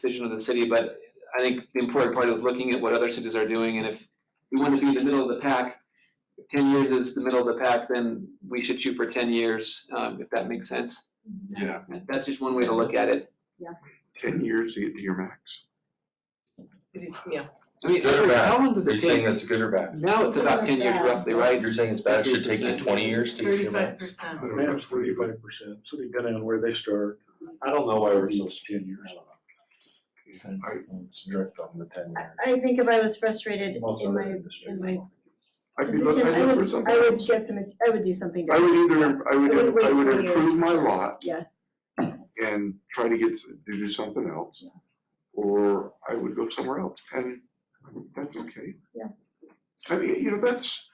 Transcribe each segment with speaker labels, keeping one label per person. Speaker 1: decision of the city, but I think the important part is looking at what other cities are doing, and if we want to be in the middle of the pack, if ten years is the middle of the pack, then we should shoot for ten years, um, if that makes sense.
Speaker 2: Yeah,
Speaker 1: That's just one way to look at it.
Speaker 2: ten years to get to your max.
Speaker 3: It is, yeah.
Speaker 1: I mean,
Speaker 4: Good or bad?
Speaker 1: how long does
Speaker 4: Are you
Speaker 1: it
Speaker 4: saying
Speaker 1: take?
Speaker 4: that's good or bad?
Speaker 1: Now it's about ten years roughly, right?
Speaker 4: You're saying it's bad, it should take you
Speaker 1: 50%.
Speaker 4: twenty years to get your
Speaker 3: Thirty-five
Speaker 4: max?
Speaker 3: percent.
Speaker 2: I don't know,
Speaker 5: Max
Speaker 2: it's pretty-
Speaker 5: thirty-five percent, so depending on where they start.
Speaker 4: I don't know why we're so
Speaker 5: Ten years.
Speaker 4: strict on the ten
Speaker 6: I- I think if I was frustrated in my, in my
Speaker 2: I'd be,
Speaker 6: position,
Speaker 2: I'd
Speaker 6: I
Speaker 2: look for
Speaker 6: would,
Speaker 2: something
Speaker 6: I would
Speaker 2: else.
Speaker 6: get some, I would do something
Speaker 2: I would
Speaker 6: different,
Speaker 2: either, I
Speaker 6: I would
Speaker 2: would,
Speaker 6: wait
Speaker 2: I would
Speaker 6: 20 years.
Speaker 2: improve my lot
Speaker 6: yes. yes.
Speaker 2: and try to get, to do something else. Or I would go somewhere else and that's okay.
Speaker 6: Yeah.
Speaker 2: I mean, you know, that's,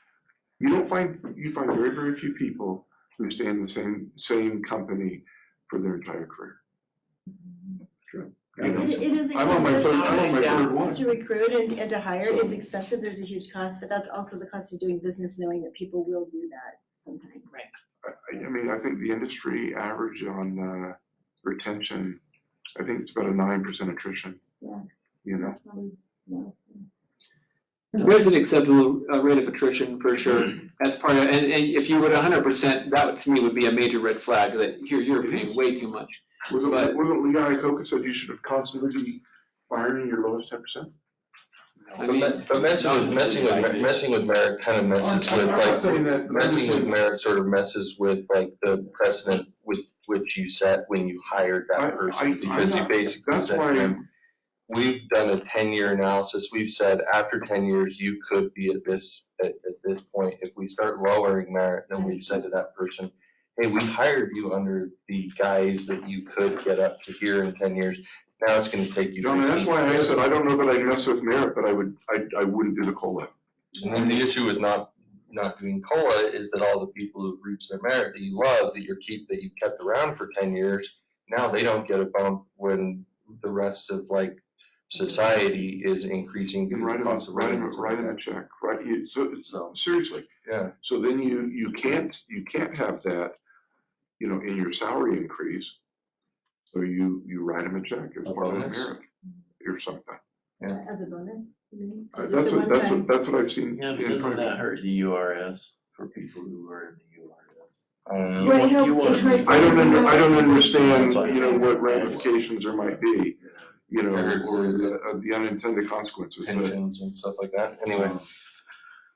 Speaker 2: you don't find, you find very, very few people who stay in the same, same company for their entire career. True. You know,
Speaker 6: Mm-hmm. It it is
Speaker 2: I'm on my third,
Speaker 6: expensive
Speaker 2: I'm on my third one.
Speaker 6: to recruit and, and to hire,
Speaker 2: So-
Speaker 6: it's expensive, there's a huge cost, but that's also the cost of doing business, knowing that people will do that sometime.
Speaker 2: I, I mean, I think the industry average on, uh, retention, I think it's about a nine percent attrition.
Speaker 6: Yeah.
Speaker 2: You know,
Speaker 6: Um, yeah.
Speaker 1: There's an acceptable uh, rate of attrition for sure, as part of, and, and if you were hundred percent, that to me would be a major red flag, that you're, you're paying way too much.
Speaker 2: wasn't,
Speaker 1: But-
Speaker 2: wasn't Lee Iacocca said you should constantly be firing your lowest ten percent?
Speaker 1: I mean,
Speaker 4: But messing with, messing with, messing with merit kind of messes with
Speaker 2: I'm not
Speaker 4: like,
Speaker 2: saying that, I'm just
Speaker 4: messing with
Speaker 2: saying,
Speaker 4: merit sort of messes with like the precedent with which you set when you hired
Speaker 2: I- I-
Speaker 4: that person,
Speaker 2: I'm
Speaker 4: because you
Speaker 2: not-
Speaker 4: basically
Speaker 2: that's
Speaker 4: said
Speaker 2: why,
Speaker 4: to them,
Speaker 2: I'm-
Speaker 4: we've done a ten-year analysis, we've said after ten years, you could be at this, at, at this point. If we start lowering merit, then we've said to that person, hey, we hired you under the guise that you could get up to here in ten years. Now it's gonna take you.
Speaker 2: John, that's
Speaker 4: 15
Speaker 2: why I
Speaker 4: years."
Speaker 2: said, I don't know that I mess with merit, but I would, I, I wouldn't do the COLA.
Speaker 4: And then the issue with not, not doing COLA is that all the people who've reached their merit that you love, that you're keep, that you've kept around for ten years, now they don't get a bump when the rest of like society is increasing.
Speaker 2: And
Speaker 4: because
Speaker 2: write
Speaker 4: the
Speaker 2: them,
Speaker 4: cost of
Speaker 2: write
Speaker 4: living
Speaker 2: them,
Speaker 4: is
Speaker 2: write them
Speaker 4: going
Speaker 2: a
Speaker 4: up.
Speaker 2: check, right, you, so, it's-
Speaker 4: So,
Speaker 2: seriously.
Speaker 4: yeah,
Speaker 2: So then you, you can't, you can't have that, you know, in your salary increase. So you, you write them a check as
Speaker 4: A
Speaker 2: part of the
Speaker 4: bonus.
Speaker 2: merit or something.
Speaker 6: As a bonus. you mean?
Speaker 2: Uh,
Speaker 6: Just
Speaker 2: That's
Speaker 6: a
Speaker 2: what, that's
Speaker 6: one-time-
Speaker 2: what, that's what I've seen.
Speaker 7: Yeah, but
Speaker 2: in
Speaker 7: doesn't that
Speaker 2: private.
Speaker 7: hurt the URS for people who are in the URS?
Speaker 4: I don't know.
Speaker 6: Right, it
Speaker 7: you
Speaker 6: helps,
Speaker 7: want-
Speaker 6: it hurts.
Speaker 2: I don't under, I don't understand,
Speaker 7: That's why-
Speaker 2: you know, what ramifications there might be, you know,
Speaker 4: I
Speaker 2: or
Speaker 4: heard so.
Speaker 2: the, uh, the unintended consequences, but.
Speaker 4: pensions and stuff like that, anyway.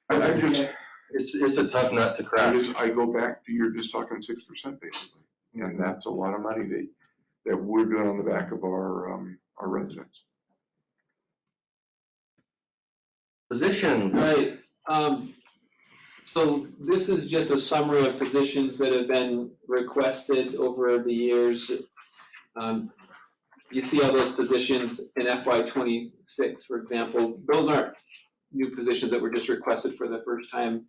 Speaker 2: I, I just,
Speaker 4: It's, it's a tough nut to
Speaker 2: I
Speaker 4: crack.
Speaker 2: just, I go back to, you're just talking six percent basically, and that's a lot of money that, that we're doing on the back of our, um, our residents.
Speaker 4: Positions,
Speaker 1: Right, um, so this is just a summary of positions that have been requested over the years. Um, You see all those positions in FY twenty-six, for example, those aren't new positions that were just requested for the first time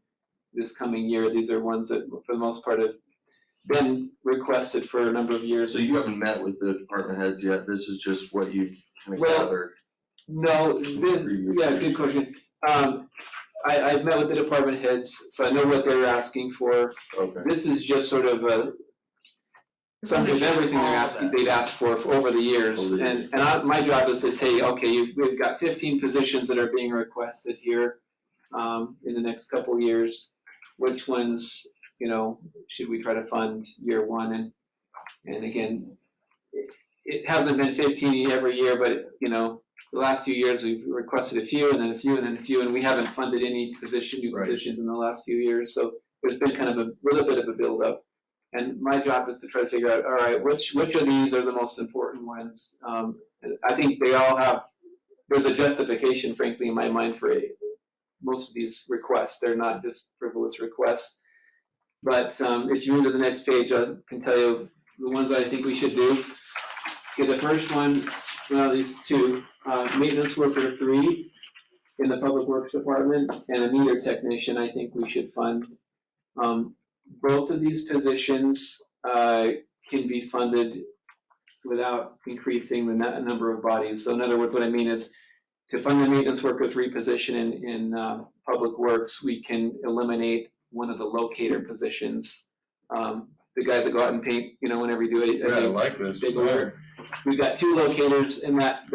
Speaker 1: this coming year, these are ones that, for the most part, have been requested for a number of years.
Speaker 4: so you haven't met with the department heads yet, this is just what you've kind of
Speaker 1: Well,
Speaker 4: gathered.
Speaker 1: No, this,
Speaker 4: Previous
Speaker 1: yeah, good question. Um, I, I've met with the department heads, so I know what they're asking for.
Speaker 4: Okay,
Speaker 1: This is just sort of a, something of everything they're asking, they've asked for for over the years.
Speaker 4: Over the
Speaker 1: And, and I, my job is to say, okay, you've, we've got fifteen positions that are being requested here, um, in the next couple of years. Which ones, you know, should we try to fund year one? And, and again, it- it hasn't been fifteen every year, but, you know, the last few years, we've requested a few and then a few and then a few, and we haven't funded any position, new
Speaker 4: Right.
Speaker 1: positions in the last few years. So there's been kind of a little bit of a buildup. And my job is to try to figure out, all right, which, which of these are the most important ones? Um, and I think they all have, there's a justification frankly in my mind for a- most of these requests. They're not just frivolous requests. But, um, if you move to the next page, I can tell you the ones that I think we should do. Okay, the first one, well, these two, uh, maintenance worker three in the public works department and a meter technician, I think we should fund. Um, both of these positions, uh, can be funded without increasing the nu- number of bodies. So in other words, what I mean is to fund the maintenance worker three position in, in, uh, public works, we can eliminate one of the locator positions. Um, the guys that go out and paint, you know, whenever you do it.
Speaker 4: yeah, I like this.
Speaker 1: Big order. We've got two locators in that